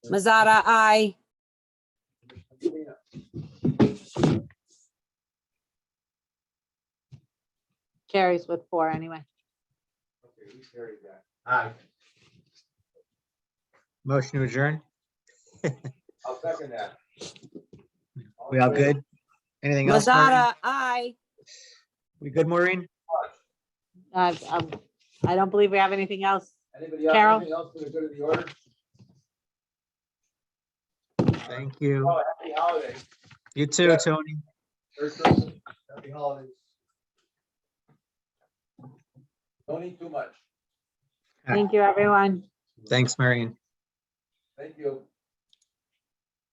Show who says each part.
Speaker 1: Mazzata, aye. Carries with four anyway.
Speaker 2: Aye.
Speaker 3: Motion to adjourn.
Speaker 2: I'll second that.
Speaker 3: We all good? Anything else? Maureen?
Speaker 1: Mazzata, aye.
Speaker 3: We good, Maureen?
Speaker 1: Uh, um, I don't believe we have anything else.
Speaker 2: Anybody else,
Speaker 1: Carol?
Speaker 2: anything else for the good of the order?
Speaker 3: Thank you.
Speaker 2: Oh, happy holidays.
Speaker 3: You too, Tony.
Speaker 2: Merry Christmas. Happy holidays. Don't eat too much.
Speaker 1: Thank you, everyone.
Speaker 3: Thanks, Marion.
Speaker 2: Thank you.